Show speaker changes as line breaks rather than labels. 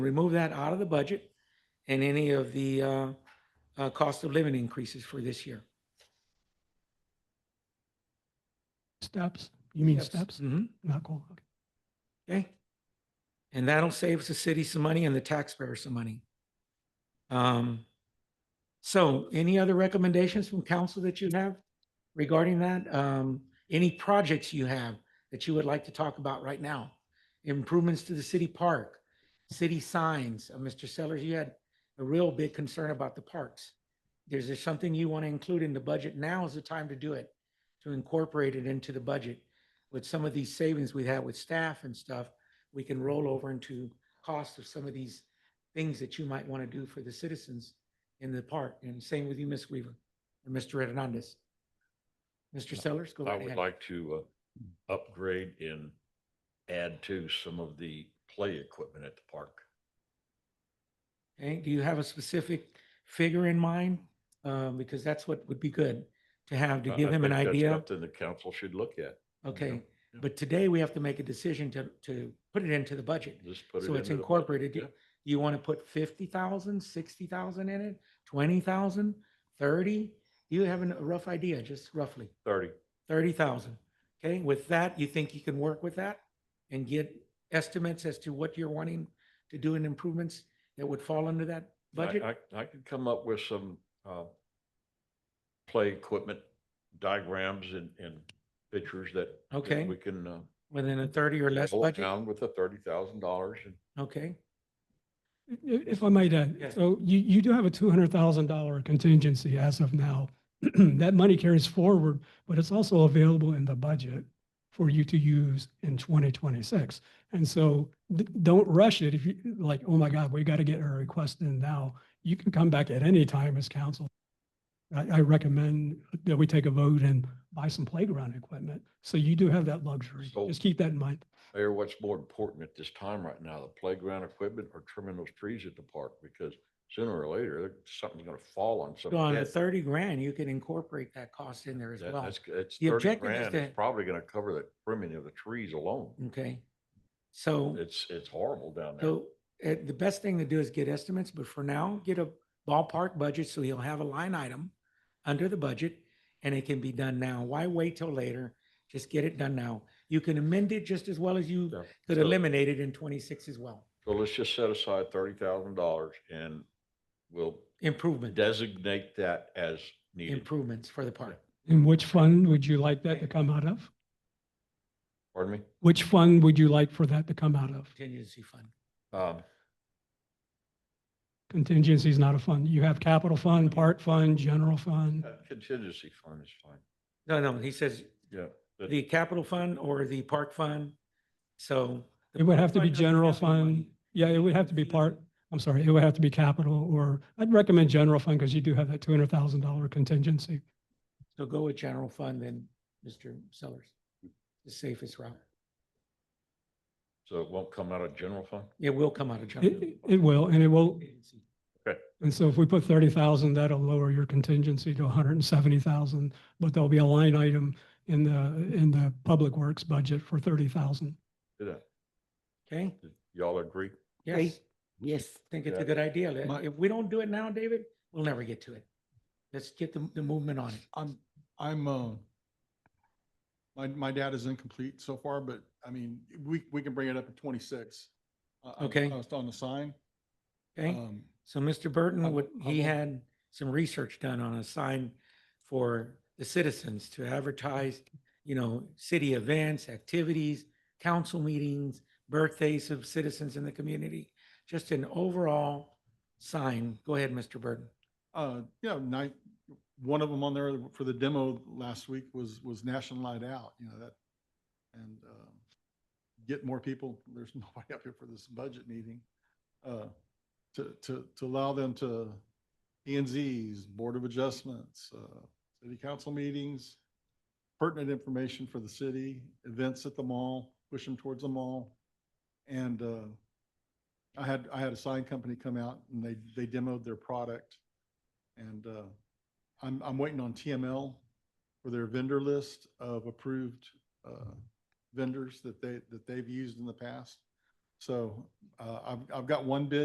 remove that out of the budget and any of the uh, uh, cost of living increases for this year.
Steps? You mean
Yes.
steps?
Mhm.
Not cool. Okay.
Okay. And that'll save the city some money and the taxpayer some money. Um, so any other recommendations from council that you have regarding that? Um, any projects you have that you would like to talk about right now? Improvements to the city park, city signs. Uh, Mr. Sellers, you had a real big concern about the parks. Is there something you want to include in the budget? Now is the time to do it, to incorporate it into the budget with some of these savings we have with staff and stuff, we can roll over into cost of some of these things that you might want to do for the citizens in the park. And same with you, Ms. Weaver and Mr. Hernandez. Mr. Sellers, go
I
right
would
ahead.
like to uh, upgrade and add to some of the play equipment at the park.
Okay, do you have a specific figure in mind? Um, because that's what would be good to have, to
I-
give
I
him an
think that's
idea.
Something the council should look at.
Okay,
yeah.
but today we have to make a decision to, to put it into the budget.
Just put it
So it's
into the-
incorporated.
Yeah.
You want to put fifty thousand, sixty thousand in it, twenty thousand, thirty? You have an- a rough idea, just roughly,
Thirty,
thirty thousand. Okay, with that, you think you can work with that and get estimates as to what you're wanting to do in improvements that would fall under that budget?
I, I, I could come up with some, uh, play equipment diagrams and, and pictures that. that
Okay.
We can, uh,
Within a thirty or less
hold
budget?
down with the thirty thousand dollars and
Okay,
I- i- If I might add,
Yes.
so you, you do have a $200,000 contingency as of now. That money carries forward, but it's also available in the budget for you to use in 2026. And so d- don't rush it if you, like, oh my God, we got to get our request in now. You can come back at any time as council. I, I recommend that we take a vote and buy some playground equipment. So you do have that luxury.
So-
Just keep that in mind.
Mayor, what's more important at this time right now, the playground equipment or trimming those trees at the park? Because sooner or later, something's gonna fall on some
so on the
dead
thirty grand, you can incorporate that cost in there as
That-
well.
That's, it's
The
thirty
objective is
grand.
to-
It's probably gonna cover the trimming of the trees alone.
Okay, so.
It's, it's horrible down there.
So uh, the best thing to do is get estimates, but for now, get a ballpark budget so he'll have a line item under the budget and it can be done now. Why wait till later? Just get it done now. You can amend it just as well as you
Yeah.
could
So-
eliminate it in 26 as well.
So let's just set aside thirty thousand dollars and we'll
Improvement,
designate that as needed.
improvements for the park.
And which fund would you like that to come out of?
Pardon me?
Which fund would you like for that to come out of?
Contingency fund.
Um,
Contingency is not a fund. You have capital fund, park fund, general fund.
that Contingency fund is fine.
No, no, he says
Yeah. but-
the capital fund or the park fund. So. the
It would
park
have to be
fund doesn't
general
have any money.
fund. Yeah, it would have to be part, I'm sorry, it would have to be capital or I'd recommend general fund because you do have that two hundred thousand dollar contingency.
So go with general fund then, Mr. Sellers. The safest route.
So it won't come out of general fund?
It will come out of general.
It, it will, and it will.
contingency.
And so if we put thirty thousand, that'll lower your contingency to hundred and seventy thousand. But there'll be a line item in the, in the public works budget for thirty thousand.
Do that.
Okay,
Y'all agree?
yes,
Yes.
think it's a
Yeah.
good idea. Let-
My-
If we don't do it now, David, we'll never get to it. Let's get the, the movement on it.
I'm, I'm, uh, my, my data is incomplete so far, but I mean, we, we can bring it up at twenty-six. Uh, I- I-
Okay.
I was on the sign.
Okay,
um,
so Mr. Burton,
I-
what,
I
he
will-
had some research done on a sign for the citizens to advertise, you know, city events, activities, council meetings, birthdays of citizens in the community, just an overall sign. Go ahead, Mr. Burton.
Uh, yeah, night, one of them on there for the demo last week was, was National Night Out, you know, that, and, um, get more people, there's nobody up here for this budget meeting, uh, to, to, to allow them to, P and Zs, Board of Adjustments, uh, city council meetings, pertinent information for the city, events at the mall, push them towards the mall. And, uh, I had, I had a sign company come out and they, they demoed their product. And uh, I'm, I'm waiting on TML for their vendor list of approved uh, vendors that they, that they've used in the past. So uh, I've, I've got one bid